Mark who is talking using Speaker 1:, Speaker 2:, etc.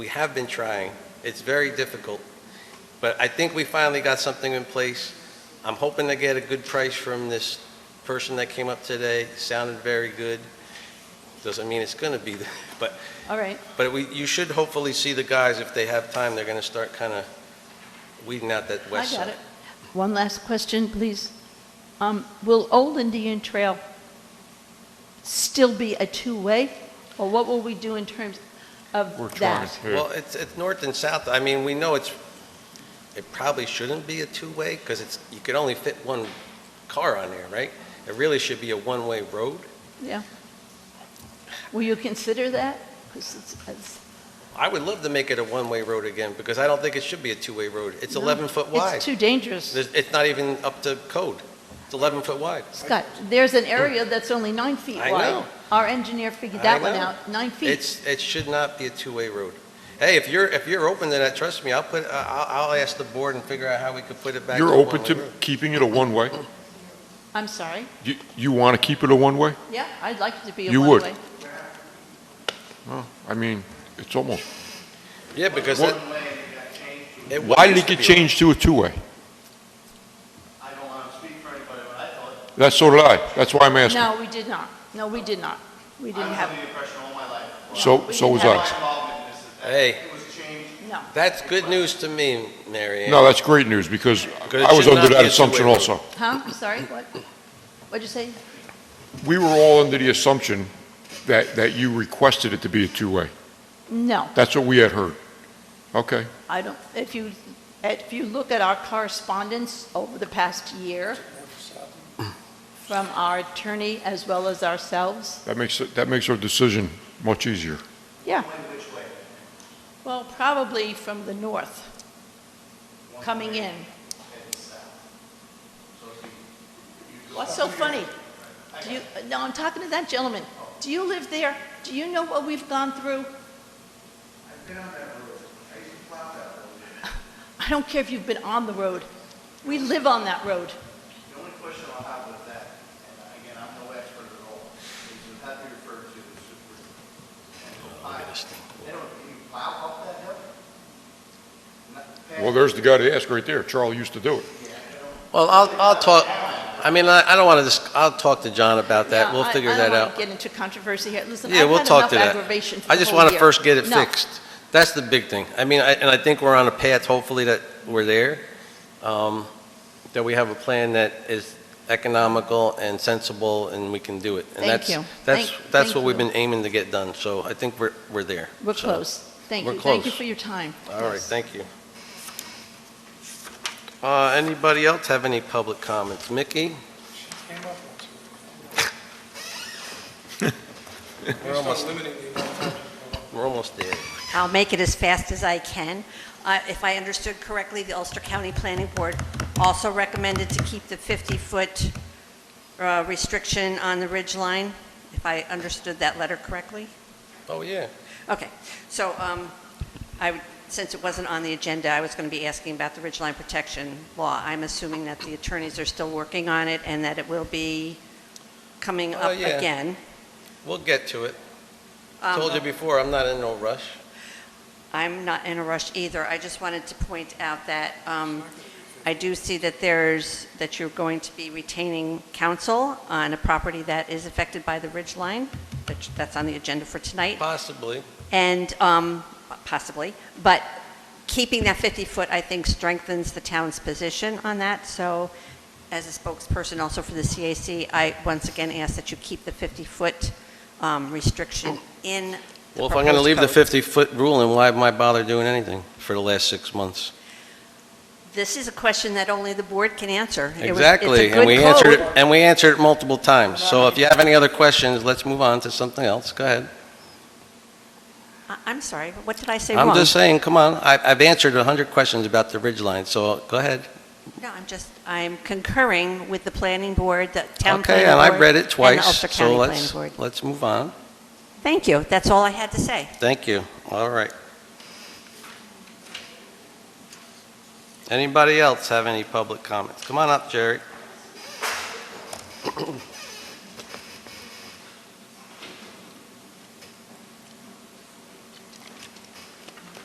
Speaker 1: We have been trying. It's very difficult, but I think we finally got something in place. I'm hoping to get a good price from this person that came up today. Sounded very good. Doesn't mean it's going to be, but,
Speaker 2: All right,
Speaker 1: but we, you should hopefully see the guys, if they have time, they're going to start kind of weeding out that
Speaker 2: I
Speaker 1: west
Speaker 2: got
Speaker 1: side.
Speaker 2: it. One last question, please. Um, Will Old Indian Trail still be a two-way, or what will we do in terms
Speaker 3: We're
Speaker 2: of
Speaker 3: trying
Speaker 2: that?
Speaker 3: to,
Speaker 1: Well, it's, it's north and south. I mean, we know it's, it probably shouldn't be a two-way because it's, you could only fit one car on there, right? It really should be a one-way road.
Speaker 2: Yeah. Will you consider that? 'Cause it's- it's-
Speaker 1: I would love to make it a one-way road again because I don't think it should be a two-way road. It's
Speaker 2: No.
Speaker 1: 11 foot wide.
Speaker 2: It's too dangerous.
Speaker 1: There's- It's not even up to code. It's 11 foot wide.
Speaker 2: Scott, there's an area that's only nine feet
Speaker 1: I
Speaker 2: wide.
Speaker 1: know.
Speaker 2: Our engineer figured
Speaker 1: I
Speaker 2: that one
Speaker 1: know.
Speaker 2: out, nine feet.
Speaker 1: It's, it should not be a two-way road. Hey, if you're, if you're open to that, trust me, I'll put, I'll, I'll ask the board and figure out how we could put it back to a
Speaker 3: you're open
Speaker 1: one-way
Speaker 3: to
Speaker 1: road.
Speaker 3: keeping it a one-way?
Speaker 2: I'm sorry.
Speaker 3: You, you want to keep it a one-way?
Speaker 2: Yeah, I'd like it to be a
Speaker 3: You would.
Speaker 2: one-way.
Speaker 3: Well, I mean, it's almost,
Speaker 1: Yeah, because
Speaker 3: What-
Speaker 1: it. it
Speaker 3: why did
Speaker 1: used
Speaker 3: it
Speaker 1: to
Speaker 3: get
Speaker 1: be a-
Speaker 3: changed to a two-way?
Speaker 4: I don't want to speak for anybody, but I thought,
Speaker 3: That's so did I, that's why I'm asking.
Speaker 2: No, we did not. No, we did not. We
Speaker 4: I
Speaker 2: didn't
Speaker 4: was
Speaker 2: have,
Speaker 4: under the impression all my life,
Speaker 3: So,
Speaker 2: we
Speaker 3: so was
Speaker 2: didn't
Speaker 4: my
Speaker 3: I.
Speaker 2: have-
Speaker 4: involvement in this is that
Speaker 1: Hey.
Speaker 4: it was changed
Speaker 2: no.
Speaker 1: That's good news to me, Mary Ann.
Speaker 3: No, that's great news, because
Speaker 1: Because it
Speaker 3: I was
Speaker 1: should not
Speaker 3: under
Speaker 1: be
Speaker 3: that
Speaker 1: a
Speaker 3: assumption
Speaker 1: two-way road.
Speaker 3: also.
Speaker 2: Huh? I'm sorry, what? What'd you say?
Speaker 3: We were all under the assumption that, that you requested it to be a two-way.
Speaker 2: No,
Speaker 3: That's what we had heard. Okay,
Speaker 2: I don't, if you, if you look at our correspondence over the past year from our attorney as well as ourselves,
Speaker 3: that makes, it- that makes our decision much easier.
Speaker 2: yeah,
Speaker 4: when, which way?
Speaker 2: well, probably from the north,
Speaker 4: One
Speaker 2: coming
Speaker 4: way
Speaker 2: in.
Speaker 4: and south. So if you- you go-
Speaker 2: What's so funny? Do you, no, I'm talking to that gentleman. Do you live there? Do you know what we've gone through?
Speaker 4: I've been on that road, I used to plow that road.
Speaker 2: I don't care if you've been on the road. We live on that road.
Speaker 4: The only question I'll have with that, and again, I'm no expert at all, is you have to refer to the super. and I- They don't, you plow up that hill? Not-
Speaker 3: Well, there's the guy to ask right there. Charlie used to do it.
Speaker 1: Well, I'll, I'll talk, I mean, I, I don't want to, I'll talk to John about that.
Speaker 2: No,
Speaker 1: We'll
Speaker 2: I-
Speaker 1: figure that
Speaker 2: I don't want
Speaker 1: out.
Speaker 2: to get into controversy here. Listen, I've
Speaker 1: Yeah,
Speaker 2: had
Speaker 1: we'll talk
Speaker 2: enough
Speaker 1: to that.
Speaker 2: aggravation for the
Speaker 1: I just
Speaker 2: whole
Speaker 1: want to
Speaker 2: year.
Speaker 1: first get it
Speaker 2: No.
Speaker 1: fixed. That's the big thing. I mean, I- and I think we're on a path, hopefully, that we're there, um, that we have a plan that is economical and sensible, and we can do it.
Speaker 2: Thank you.
Speaker 1: And that's, that's, that's
Speaker 2: Thank- thank
Speaker 1: what we've
Speaker 2: you.
Speaker 1: been aiming to get done, so I think we're, we're there.
Speaker 2: We're
Speaker 1: So-
Speaker 2: close. Thank
Speaker 1: We're
Speaker 2: you. Thank you
Speaker 1: close.
Speaker 2: for your time.
Speaker 1: All right,
Speaker 2: Yes.
Speaker 1: thank you. Uh, Anybody else have any public comments? Mickey? We're almost- We're almost there.
Speaker 5: I'll make it as fast as I can. Uh, If I understood correctly, the Ulster County Planning Board also recommended to keep the 50-foot uh, restriction on the ridge line, if I understood that letter correctly.
Speaker 1: Oh, yeah.
Speaker 5: Okay, so um, I, would- since it wasn't on the agenda, I was going to be asking about the ridge line protection law. I'm assuming that the attorneys are still working on it and that it will be coming
Speaker 1: Oh,
Speaker 5: up
Speaker 1: yeah.
Speaker 5: again.
Speaker 1: We'll get to it.
Speaker 5: Um,
Speaker 1: Told you before, I'm not in no rush.
Speaker 5: I'm not in a rush either. I just wanted to point out that um, I do see that there's, that you're going to be retaining counsel on a property that is affected by the ridge line, which that's on the agenda for tonight,
Speaker 1: Possibly.
Speaker 5: and um, possibly, but keeping that 50-foot, I think, strengthens the town's position on that. So as a spokesperson also for the CAC, I once again ask that you keep the 50-foot um, restriction in the
Speaker 1: Well, if I'm going to
Speaker 5: proposed
Speaker 1: leave the
Speaker 5: code.
Speaker 1: 50-foot rule, then why am I bother doing anything for the last six months?
Speaker 5: This is a question that only the board can answer. It was-
Speaker 1: Exactly,
Speaker 5: It's a
Speaker 1: and we
Speaker 5: good
Speaker 1: answered, it
Speaker 5: code.
Speaker 1: and we answered it multiple times. So if you have any other questions, let's move on to something else. Go ahead.
Speaker 5: I- I'm sorry, what did I say wrong?
Speaker 1: I'm just saying, come on, I- I've answered 100 questions about the ridge line, so go ahead.
Speaker 5: No, I'm just, I'm concurring with the planning board, the town planning board.
Speaker 1: Okay, and I read
Speaker 5: and
Speaker 1: it
Speaker 5: the
Speaker 1: twice,
Speaker 5: Ulster
Speaker 1: so
Speaker 5: County Planning
Speaker 1: let's,
Speaker 5: Board.
Speaker 1: let's move on.
Speaker 5: Thank you, that's all I had to say.
Speaker 1: Thank you, all right. Anybody else have any public comments? Come on up, Jerry.